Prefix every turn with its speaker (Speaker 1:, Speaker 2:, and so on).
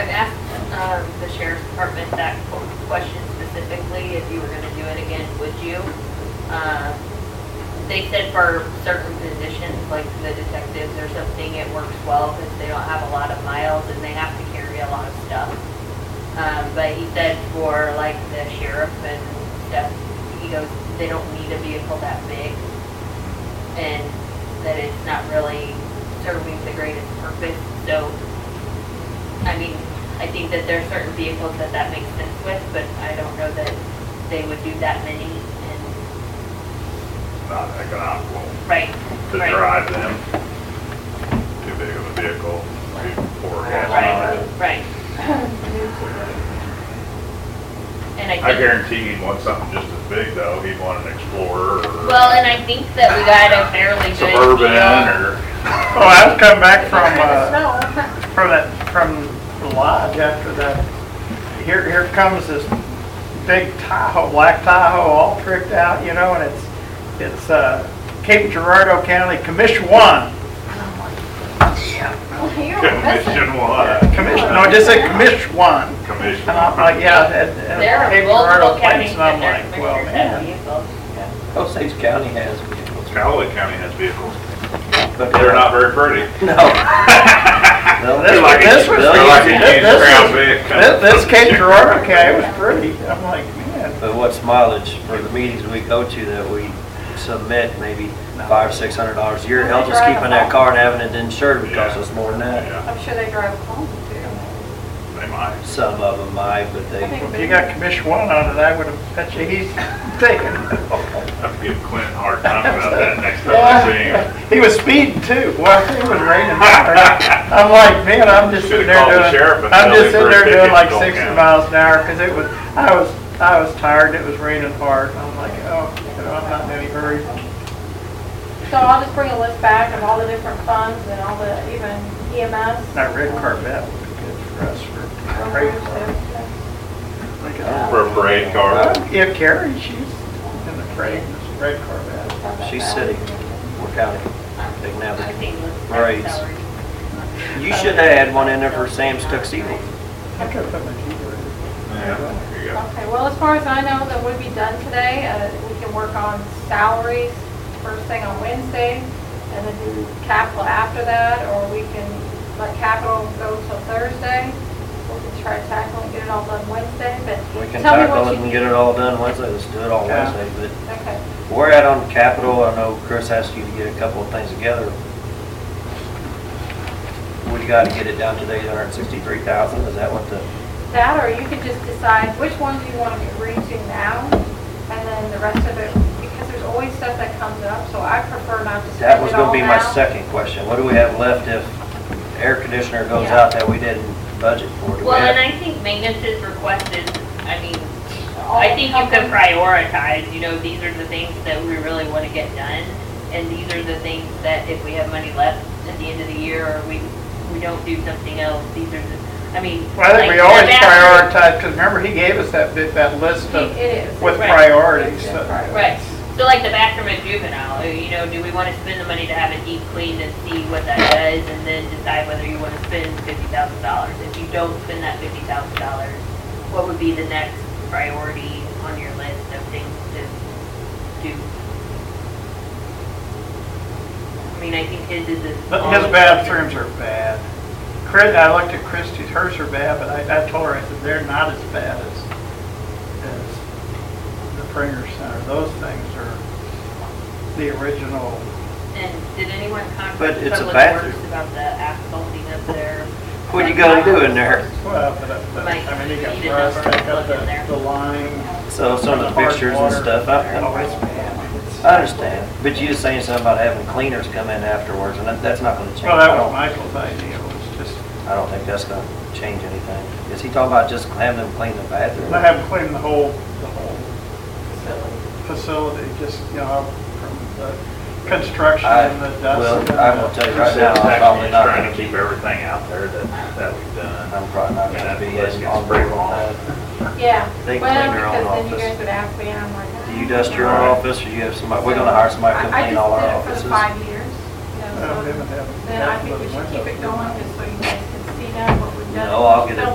Speaker 1: um, the sheriff's department that question specifically, if you were gonna do it again, would you? Um, They said for certain positions, like the detectives or something, it works well because they don't have a lot of miles and they have to carry a lot of stuff. Um, but he said for like the sheriff and stuff, he goes, they don't need a vehicle that big. And that it's not really serving the greatest purpose, so, I mean, I think that there are certain vehicles that that makes sense with, but I don't know that they would do that many and,
Speaker 2: not economical
Speaker 1: right,
Speaker 2: to
Speaker 1: right.
Speaker 2: drive them. Too big of a vehicle, too poor gas mileage.
Speaker 1: Right, right. And I think.
Speaker 2: I guarantee he'd want something just as big though, he'd want an Explorer or.
Speaker 1: Well, and I think that we got a fairly good.
Speaker 2: Suburban
Speaker 1: deal.
Speaker 2: or.
Speaker 3: Oh, I was coming back from, uh, from that, from the lodge after that. Here, here comes this big Tahoe, black Tahoe, all tricked out, you know, and it's, it's, uh, Cape Girardeau County Commission One.
Speaker 2: Commission one.
Speaker 3: Commission, no, it just said Commission One.
Speaker 2: Commission.
Speaker 3: And I'm like, yeah, and,
Speaker 1: There
Speaker 3: and
Speaker 1: are
Speaker 3: Cape Girardeau
Speaker 1: multiple
Speaker 3: place,
Speaker 1: counties
Speaker 3: and
Speaker 1: that
Speaker 3: I'm
Speaker 1: their
Speaker 3: like, well,
Speaker 1: commissioners have
Speaker 3: man.
Speaker 1: vehicles.
Speaker 4: Osage County has vehicles,
Speaker 2: Cowley County has vehicles,
Speaker 4: but
Speaker 2: they're not very pretty.
Speaker 4: No. No,
Speaker 3: This-
Speaker 2: They're like a-
Speaker 3: this was-
Speaker 2: They're like a
Speaker 3: this-
Speaker 2: used
Speaker 3: this
Speaker 2: Crown
Speaker 3: was-
Speaker 2: Vic.
Speaker 3: This, this Cape Girardeau County was pretty, I'm like, man,
Speaker 4: But what's mileage for the meetings we go to that we submit, maybe five, six hundred dollars a year, helps us keeping that car and having it insured would cost us more than that.
Speaker 2: Yeah,
Speaker 5: I'm sure they drive home too.
Speaker 2: they might.
Speaker 4: Some of them might, but they,
Speaker 3: if you got Commission One on it, I would have bet you he's taken.
Speaker 2: Have to give Clint a hard time about that next time I see him.
Speaker 3: He was speeding too. Well, it was raining. I'm like, man, I'm just sitting
Speaker 2: Should've
Speaker 3: there
Speaker 2: called the
Speaker 3: doing,
Speaker 2: sheriff and
Speaker 3: I'm
Speaker 2: tell him
Speaker 3: just
Speaker 2: for a
Speaker 3: sitting there doing
Speaker 2: ticket,
Speaker 3: like
Speaker 2: don't
Speaker 3: sixty
Speaker 2: count.
Speaker 3: miles an hour, cause it was, I was, I was tired, it was raining hard. I'm like, oh, you know, I'm not in any hurry.
Speaker 5: So I'll just bring a list back of all the different funds and all the, even E EMS.
Speaker 3: That red Corvette would be good for us for parade.
Speaker 2: For a parade car.
Speaker 3: Well, Yeah, Carrie, she's in the parade, this red Corvette.
Speaker 4: she's city, we're county, big
Speaker 1: I
Speaker 4: now.
Speaker 1: think with
Speaker 4: Right.
Speaker 1: salary.
Speaker 4: You should have had one in there for Sam's tuxedo.
Speaker 3: I could put my Jeep in
Speaker 2: Yeah, there you go.
Speaker 5: Okay, well, as far as I know, that would be done today. Uh, We can work on salaries first thing on Wednesday and then do capital after that, or we can let capital go till Thursday. We can try to tackle and get it all done Wednesday, but
Speaker 4: We can
Speaker 5: tell me
Speaker 4: tackle
Speaker 5: what
Speaker 4: it
Speaker 5: you
Speaker 4: and
Speaker 5: need.
Speaker 4: get it all done Wednesday, let's do it all
Speaker 3: Yeah.
Speaker 4: Wednesday, but
Speaker 5: Okay,
Speaker 4: We're at on capital, I know Chris asked you to get a couple of things together. We gotta get it down to the eight hundred and sixty-three thousand, is that what the,
Speaker 5: that, or you could just decide which ones you want to agree to now, and then the rest of it, because there's always stuff that comes up, so I prefer not to
Speaker 4: that
Speaker 5: spend
Speaker 4: was
Speaker 5: it all
Speaker 4: gonna be my
Speaker 5: now.
Speaker 4: second question. What do we have left if air conditioner goes
Speaker 5: Yeah.
Speaker 4: out that we didn't budget for? Do we
Speaker 1: Well, and
Speaker 4: have-
Speaker 1: I think maintenance is requested, I mean,
Speaker 5: All
Speaker 1: I think you
Speaker 5: covered.
Speaker 1: could prioritize, you know, these are the things that we really want to get done. And these are the things that if we have money left at the end of the year or we, we don't do something else, these are the, I mean.
Speaker 3: Well, I think
Speaker 1: like
Speaker 3: we
Speaker 1: the
Speaker 3: always
Speaker 1: bathroom-
Speaker 3: prioritize, cause remember, he gave us that bit, that list of,
Speaker 5: It is.
Speaker 3: with
Speaker 1: Right.
Speaker 3: priorities. so-
Speaker 1: Right, so like the bathroom at juvenile, you know, do we wanna spend the money to have it deep cleaned and see what that does, and then decide whether you wanna spend fifty thousand dollars? If you don't spend that fifty thousand dollars, what would be the next priority on your list of things to do? I mean, I think his is. a-
Speaker 3: But His bathrooms are bad. Chris, I looked at Christie's, hers are bad, but I, I told her, I said, they're not as bad as, as the Pringer Center. Those things are the original,
Speaker 1: And did anyone
Speaker 4: But
Speaker 1: contact
Speaker 4: it's a
Speaker 1: Public
Speaker 4: bathroom.
Speaker 1: Works about the asphalting up there?
Speaker 4: What you gonna do in there?
Speaker 3: well, but, but, I mean, you got rust, they got the, the lime.
Speaker 4: So some of the
Speaker 3: hard
Speaker 4: pictures and
Speaker 3: water.
Speaker 4: stuff,
Speaker 3: Oh,
Speaker 4: I,
Speaker 3: it's bad. It's-
Speaker 4: I understand, but you was saying something about having cleaners come in afterwards, and that, that's not gonna change.
Speaker 3: Well, that
Speaker 4: I
Speaker 3: was
Speaker 4: don't-
Speaker 3: Michael's idea, was just,
Speaker 4: I don't think that's gonna change anything. Is he talking about just having them clean the bathroom?
Speaker 3: I have cleaned the whole, the whole
Speaker 5: Facility.
Speaker 3: facility, just, you know, from the construction
Speaker 4: I-
Speaker 3: and the dust.
Speaker 4: well,
Speaker 3: and
Speaker 4: I will
Speaker 3: the-
Speaker 4: tell you
Speaker 2: Right
Speaker 4: right now, I'm probably not
Speaker 2: trying
Speaker 4: gonna
Speaker 2: to
Speaker 4: keep,
Speaker 2: keep everything out there that, that we've done.
Speaker 4: I'm probably not
Speaker 2: Yeah,
Speaker 4: gonna be
Speaker 2: let's
Speaker 4: in
Speaker 2: get
Speaker 4: on
Speaker 2: some
Speaker 4: board with
Speaker 2: break on.
Speaker 4: that.
Speaker 5: Yeah,
Speaker 4: They
Speaker 5: well,
Speaker 4: clean their own
Speaker 5: because then you
Speaker 4: office.
Speaker 5: guys would ask me, and I'm like.
Speaker 4: Do you dust your own office, or you have somebody, we're gonna hire somebody to
Speaker 5: I-
Speaker 4: clean all our
Speaker 5: I just did it for the
Speaker 4: offices?
Speaker 5: five years, you
Speaker 3: I
Speaker 5: know,
Speaker 3: don't
Speaker 5: so
Speaker 3: even have-
Speaker 5: then I think we should keep it going, just so you guys can see now what we've done.
Speaker 4: No, I'll get it